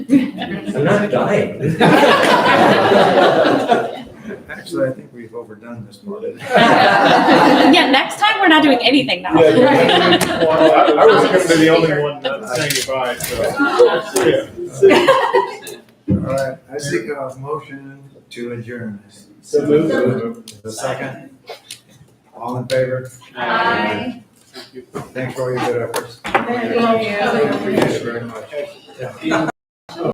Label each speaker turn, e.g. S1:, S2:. S1: I'm not dying.
S2: Actually, I think we've overdone this part.
S3: Yeah, next time we're not doing anything now.
S4: Yeah, you went to- well, I I was gonna be the only one not
S2: Speaker.
S4: saying goodbye, so. Yeah.
S2: All right, I seek a motion to adjourn.
S4: So
S2: The second? All in favor?
S5: Aye.
S2: Thanks for all your good efforts.
S5: Thank you.
S2: Appreciate it very much.
S4: moved.